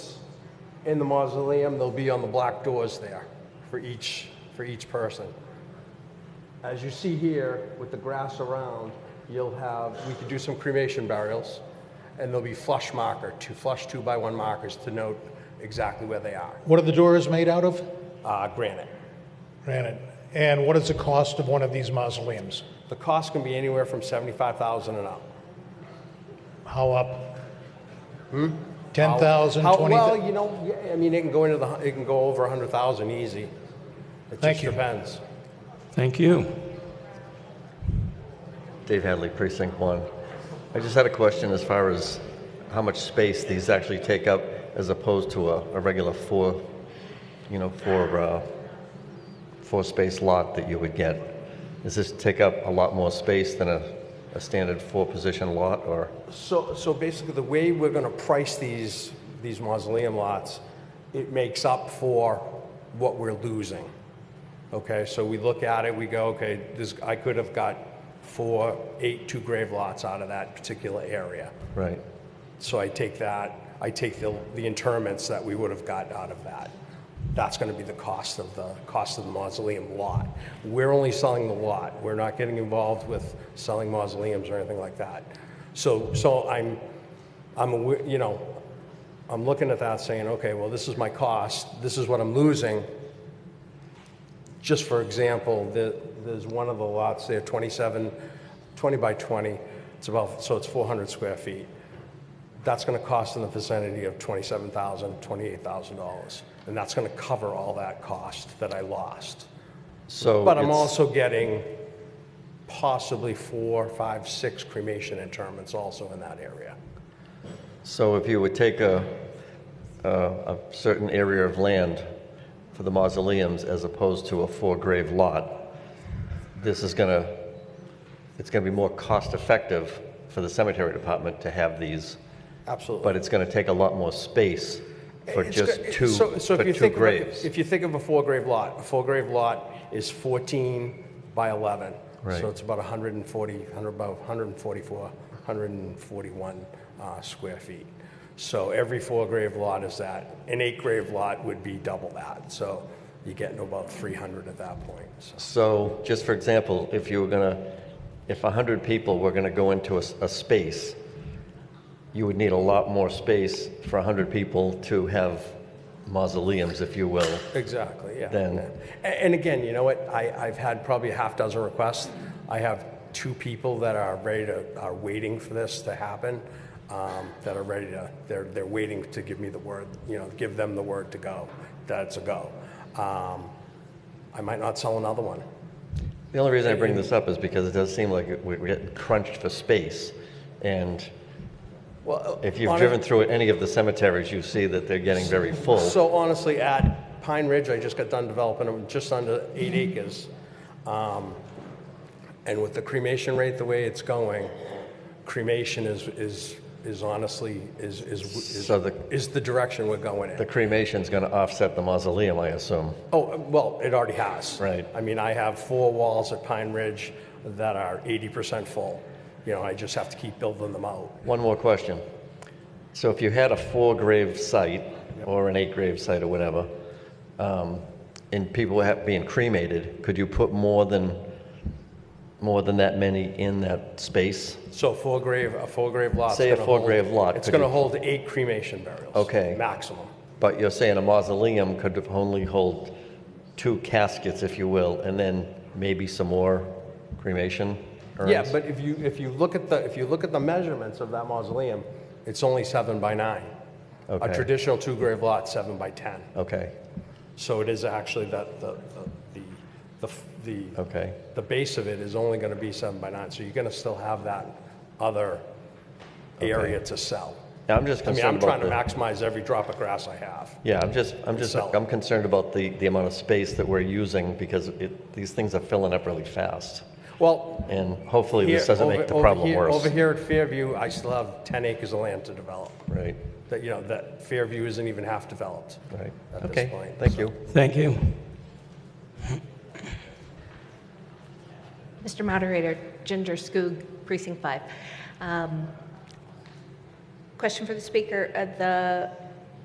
in the mausoleum, they'll be on the black doors there for each, for each person. As you see here, with the grass around, you'll have, we could do some cremation burials, and there'll be flush marker, two flush two by one markers to note exactly where they are. What are the doors made out of? Uh, granite. Granite. And what is the cost of one of these mausoleums? The cost can be anywhere from seventy-five thousand and up. How up? Ten thousand, Hmm? How- twenty Well, thousand? you know, yeah, I mean, it can go into the, hu- it can go over a hundred thousand easy. It Thank just you. depends. Thank you. Dave Hadley, Precinct One. I just had a question as far as how much space these actually take up as opposed to a, a regular four, you know, four, uh, four space lot that you would get. Does this take up a lot more space than a, a standard four position lot or? So, so basically, the way we're gonna price these, these mausoleum lots, it makes up for what we're losing. Okay, so we look at it, we go, okay, this, I could have got four, eight, two grave lots out of that particular area. Right. So I take that, I take the, the interments that we would have gotten out of that. That's gonna be the cost of the, cost of the mausoleum lot. We're only selling the lot, we're not getting involved with selling mausoleums or anything like that. So, so I'm, I'm, awa- you know, I'm looking at that saying, okay, well, this is my cost, this is what I'm losing. Just for example, the, there's one of the lots there, 27, 20 by 20, it's about, so it's 400 square feet that's going to cost in the vicinity of $27,000, $28,000. And that's going to cover all that cost that I lost. So. But I'm it's- also getting possibly four, five, six cremation interments also in that area. So if you would take a, a, a certain area of land for the mausoleums as opposed to a four grave lot, this is gonna, it's gonna be more cost effective for the cemetery department to have these, Absolutely. but it's gonna take a lot more space for It's just go- two, so- so if for you two think of a- graves. If you think of a four-grave lot, a four-grave lot is 14 by 11. Right. So it's about 140, 100 about 144, 141 uh, square feet. So every four-grave lot is that. An eight-grave lot would be double that. So you get into about 300 at that point. So- So, just for example, if you were gonna, if 100 people were gonna go into a, s- a space, you would need a lot more space for 100 people to have mausoleums, if you will. Exactly, yeah. Then- yeah. A- And again, you know what, I, I've had probably a half dozen requests. I have two people that are ready to, are waiting for this to happen, um, that are ready to, they're, they're waiting to give me the word, you know, give them the word to go, that it's a go. Um, I might not sell another one. The only reason I bring this up is because it does seem like it- we- we're getting crunched for space. And Well, if you've driven through any of the cemeteries, you see that they're getting very full. So honestly, at Pine Ridge, I just got done developing them just under eight acres. Um, And with the cremation rate the way it's going, cremation is, is, is honestly, is, is, is- So the- is the direction we're going The in. cremation's gonna offset the mausoleum, I assume. Oh, well, it already has. Right. I mean, I have four walls at Pine Ridge that are 80% full. You know, I just have to keep building them out. One more question. So if you had a four grave site or an eight grave site or whatever, um, and people were ha- being cremated, could you put more than, more than that many in that space? So four grave, a four grave lot. Say a four-grave lot, It's could going to you- hold eight cremation burials. Okay. Maximum. But you're saying a mausoleum could only hold two caskets, if you will, and then maybe some more cremation urns? Yeah, but if you, if you look at the, if you look at the measurements of that mausoleum, it's only seven by nine. A Okay. traditional two grave lot, seven by 10. Okay, So it is actually that, the, the, the, the, okay. the base of it is only gonna be seven by nine, so you're gonna still have that other area to sell. Now, I'm just I mean, I'm concerned about trying to the- maximize every drop of grass I have. Yeah, I'm just, I'm just, Itself. I'm concerned about the, the amount of space that we're using because it, these things are filling up really fast. Well, And hopefully this here- doesn't over- make the over problem here- Over worse. here at Fairview, I still have 10 acres of land to develop, Right, that, you know, that Fairview isn't even half developed. right. At this Okay, point, thank so- you. Thank you. Mr. Moderator, Ginger Skoog, Precinct 5. Um, Question for the speaker, Uh, the